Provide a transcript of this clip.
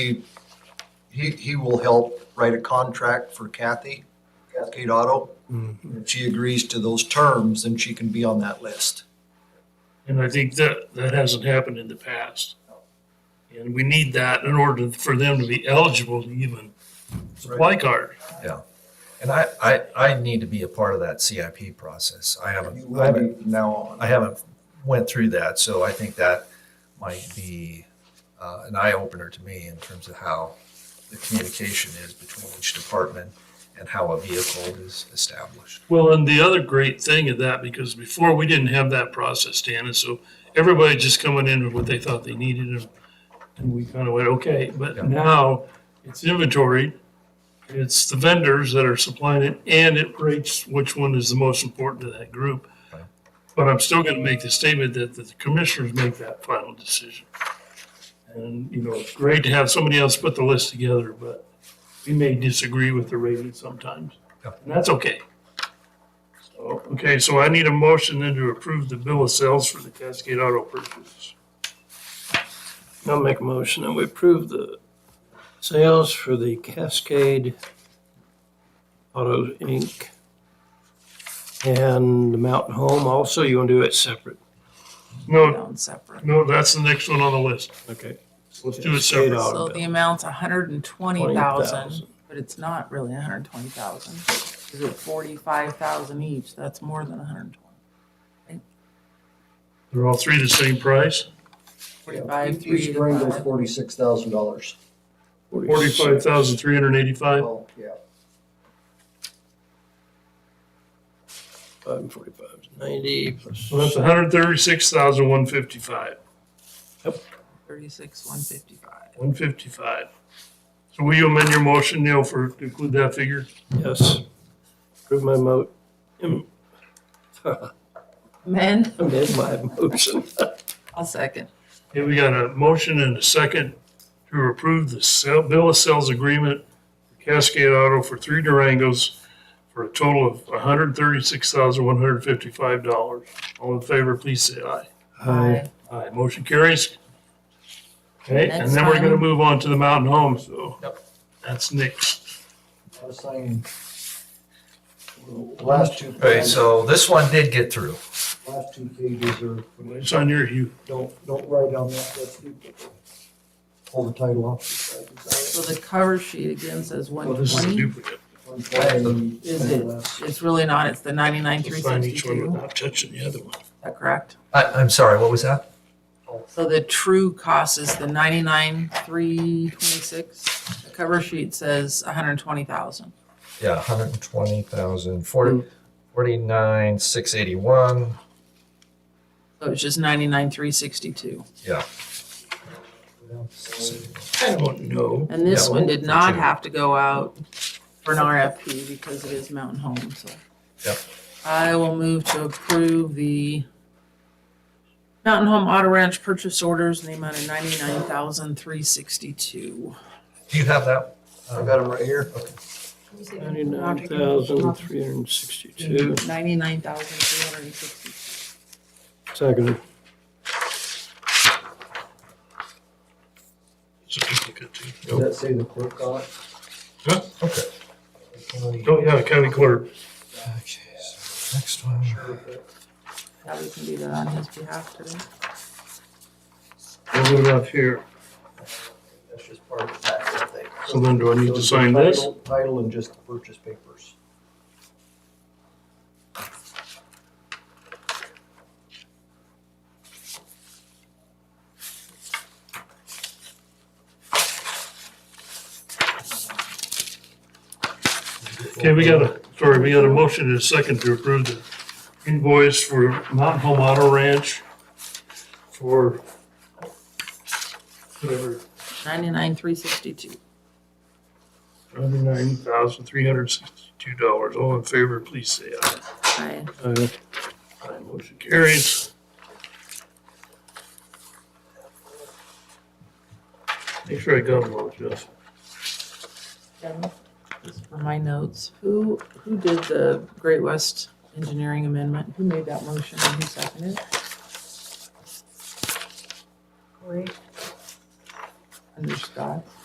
He, he, he will help write a contract for Kathy, Cascade Auto. If she agrees to those terms, then she can be on that list. And I think that, that hasn't happened in the past. And we need that in order for them to be eligible to even supply card. And I, I, I need to be a part of that CIP process. I You haven't, I will haven't, be from now on. I haven't went through that, so I think that might be uh, an eye opener to me in terms of how the communication is between each department and how a vehicle is established. Well, and the other great thing of that, because before we didn't have that process, Dan, and so everybody just coming in with what they thought they needed and, and we kind of went, okay, Yeah. but now it's inventory. It's the vendors that are supplying it and it rates which one is the most important to that group. Right. But I'm still gonna make the statement that the commissioners make that final decision. And, you know, it's great to have somebody else put the list together, but we may disagree with the rating sometimes. Yeah. And that's okay. So, okay, so I need a motion then to approve the bill of sales for the Cascade Auto purchase. I'll make a motion that we approve the sales for the Cascade Auto Inc. and the Mountain Home also. You want to do it separate? No, down separate. no, that's the next one on the list. Okay. Let's do it separate. So the amount's hundred and twenty 20,000. thousand, but it's not really hundred and twenty thousand. Is it forty-five thousand each? That's more than 120. hundred and twenty. They're all three the same price, Forty-five, Each three, brand is five. forty-six thousand dollars. forty-five thousand three hundred and eighty-five. Well, yeah. Five and forty-five is ninety plus. So that's one hundred thirty-six thousand one fifty-five. Thirty-six, one fifty-five. One fifty-five. So will you amend your motion, Neil, for to include that figure? Yes. Approve my mo, Men, amend my motion. I'll second. Okay, we got a motion and a second to approve the sale, bill of sales agreement for Cascade Auto for three Durangos for a total of hundred and thirty-six thousand, one hundred and fifty-five dollars. All in favor, please say aye. Aye. Aye, motion carries. Okay, and Next then we're gonna time. move on to the mountain home, so Yep. that's next. I was saying, the last two, All right, so this one did get through. last two pages are, It's on your, you, don't, don't write on that, that's duplicate. Pull the title off. So the cover sheet again says well, one this is a twenty. duplicate. Is it? It's really not. It's the ninety-nine, three We'll Sign each one sixty-two. Is without touching the other one. that correct? I, I'm sorry, what was that? So the true cost is the ninety-nine, three twenty-six. The cover sheet says hundred and twenty thousand. Yeah, 120,000, 40 49, 681. So it's just ninety-nine, three sixty-two. Yeah. I don't know. And this Yeah, one well, did for not two. have to go out for an RFP because it is Mountain Home, so. Yep. I will move to approve the Mountain Home Auto Ranch purchase orders in the amount of ninety-nine thousand, three sixty-two. Do you have that? I got them right here. Ninety-nine thousand, three hundred and sixty-two. Ninety-nine thousand, three hundred and sixty. Second. It's a duplicate too. Does that say the clerk on it? Huh? Okay. Oh, yeah, county clerk. Okay, so next one. Yeah, we can do that on his behalf today. We'll move it up here. That's just part of the tax thing. So then do I need to sign this? Title- Title and just the purchase papers. Okay, we got a, sorry, we got a motion and a second to approve the invoice for Mountain Home Auto Ranch for whatever, Ninety-nine, three sixty-two. ninety-nine thousand, three hundred sixty-two dollars. All in favor, please say aye. I, Aye. Aye, motion carries. Make sure I got them all, Jeff. just for my notes, who, who did the Great West Engineering Amendment? Who made that motion and who seconded it? Under Scott?